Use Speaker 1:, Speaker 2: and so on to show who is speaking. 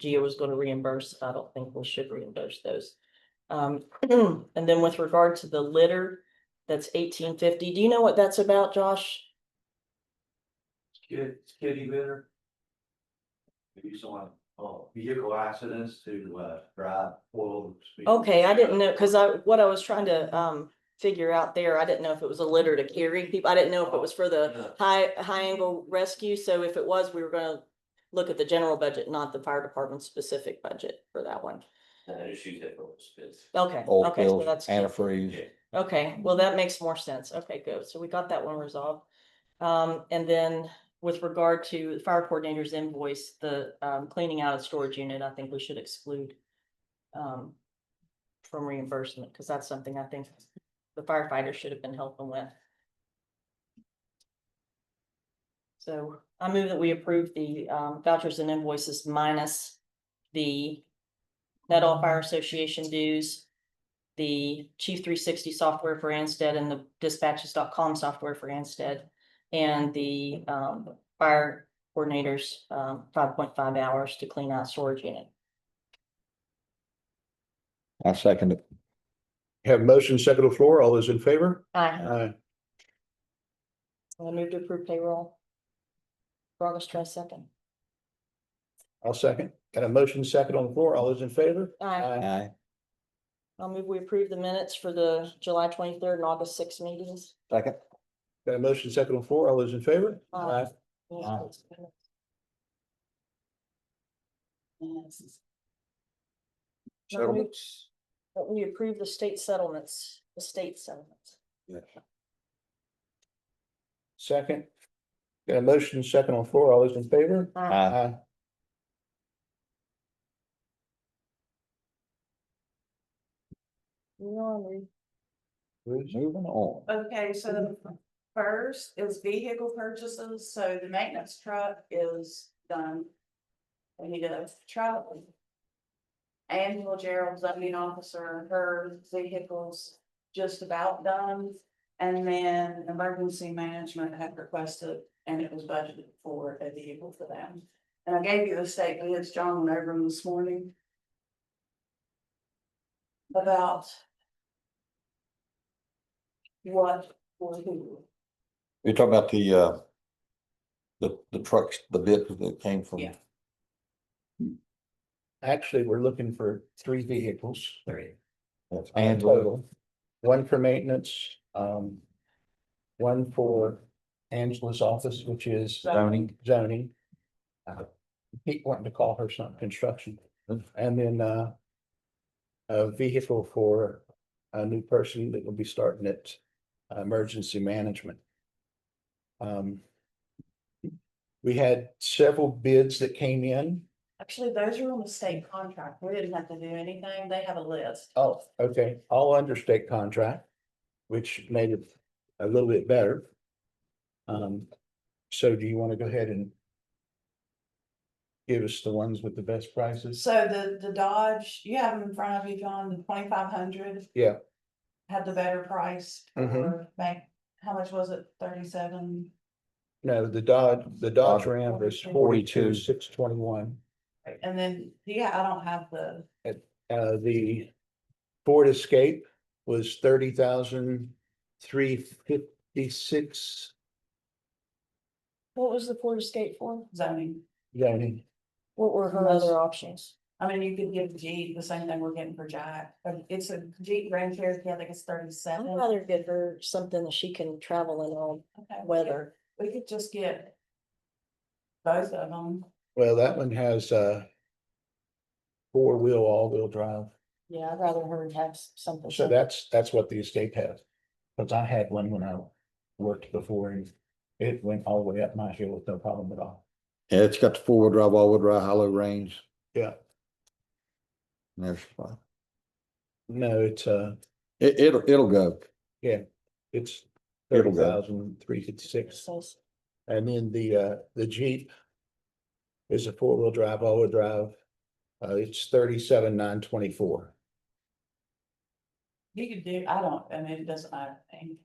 Speaker 1: GEO was gonna reimburse, I don't think we should reimburse those. Um, and then with regard to the litter, that's eighteen fifty, do you know what that's about, Josh?
Speaker 2: Kid, kitty litter. Maybe someone, oh, vehicle accidents to, uh, drive oil.
Speaker 1: Okay, I didn't know, cause I, what I was trying to, um, figure out there, I didn't know if it was a litter to carry people, I didn't know if it was for the
Speaker 2: know.
Speaker 1: high, high angle rescue, so if it was, we were gonna look at the general budget, not the fire department specific budget for that one.
Speaker 2: Just use that for what's good.
Speaker 1: Okay,
Speaker 3: oil
Speaker 1: okay, so
Speaker 3: spills,
Speaker 1: that's.
Speaker 3: antifreeze.
Speaker 1: Okay, well, that makes more sense. Okay, good. So we got that one resolved. Um, and then with regard to the fire coordinator's invoice, the um cleaning out of storage unit, I think we should exclude. Um. From reimbursement, because that's something I think the firefighters should have been helping with. So I move that we approve the um vouchers and invoices minus the. Net All Fire Association dues, the Chief three sixty software for Anstead and the dispatches.com software for Anstead. And the um fire coordinators um five point five hours to clean out storage unit.
Speaker 3: I second it.
Speaker 4: Have motion second on the floor. All those in favor?
Speaker 1: Aye.
Speaker 4: Aye.
Speaker 1: I move to approve payroll. For August twenty second.
Speaker 4: I'll second. Got a motion second on the floor. All those in favor?
Speaker 1: Aye.
Speaker 4: Aye.
Speaker 3: Aye.
Speaker 1: I'll move we approve the minutes for the July twenty third and August sixth meetings.
Speaker 3: Second.
Speaker 4: Got a motion second on the floor. All those in favor?
Speaker 1: Aye.
Speaker 3: Wow.
Speaker 4: Settlements.
Speaker 1: But we approve the state settlements, the state settlements.
Speaker 4: Second. Got a motion second on the floor. All those in favor?
Speaker 1: Aye.
Speaker 3: Aye.
Speaker 1: You know, I'm re-
Speaker 4: Bruce?
Speaker 3: Moving on.
Speaker 5: Okay, so the first is vehicle purchases, so the maintenance truck is done. We need a truck. Angela Gerald's zoning officer, her vehicles just about done. And then emergency management had requested, and it was budgeted for a vehicle for them. And I gave you the state bids, John went over them this morning. About what or who.
Speaker 3: You're talking about the, uh, the, the trucks, the bit that came from.
Speaker 5: Yeah.
Speaker 4: Actually, we're looking for three vehicles. Three.
Speaker 3: That's
Speaker 4: And
Speaker 3: Angela.
Speaker 4: total. One for maintenance, um. One for Angela's office, which is
Speaker 3: Zoning.
Speaker 4: zoning. Uh, Keep wanting to call her something construction, and then, uh. A vehicle for a new person that will be starting at uh, emergency management. Um. We had several bids that came in.
Speaker 5: Actually, those are on the state contract. We didn't have to do anything. They have a list.
Speaker 4: Oh, okay, all under state contract, which made it a little bit better. Um, so do you want to go ahead and give us the ones with the best prices?
Speaker 5: So the, the Dodge, you have them in front of you, John, the twenty-five hundred.
Speaker 4: Yeah.
Speaker 5: Had the better price
Speaker 4: Mhm.
Speaker 5: for, bank. how much was it? Thirty-seven?
Speaker 4: No, the Dodge, the Dodge Ram was
Speaker 5: 42.
Speaker 4: forty-two, six twenty-one.
Speaker 5: And then, yeah, I don't have the,
Speaker 4: Uh, the Ford Escape was thirty thousand, three fifty-six,
Speaker 1: What was the Ford Escape for?
Speaker 5: zoning.
Speaker 4: zoning.
Speaker 1: What were her
Speaker 5: Unless-
Speaker 1: other options?
Speaker 5: I mean, you could give Jeep the same thing we're getting for Jack, but it's a Jeep Grand Cherokee, I think it's
Speaker 1: I'd
Speaker 5: thirty-seven.
Speaker 1: rather get her something that she can travel in all
Speaker 5: Okay,
Speaker 1: weather.
Speaker 5: We could just get both of them.
Speaker 4: Well, that one has, uh, four-wheel, all-wheel drive.
Speaker 1: Yeah, I'd rather her have s- something.
Speaker 4: So that's, that's what the estate has. Cause I had one when I worked before and it went all the way up my hill with no problem at all.
Speaker 3: Yeah, it's got the four-wheel drive, all-wheel drive, hollow range.
Speaker 4: Yeah.
Speaker 3: And there's, fine.
Speaker 4: No, it's, uh,
Speaker 3: it, it'll, it'll go.
Speaker 4: it's
Speaker 3: It'll
Speaker 4: thirty
Speaker 3: go.
Speaker 4: thousand three fifty-six. And then the, uh, the Jeep is a four-wheel drive, all-wheel drive. Uh, it's thirty-seven, nine twenty-four.
Speaker 5: You could do, I don't, I mean, it doesn't matter. I mean,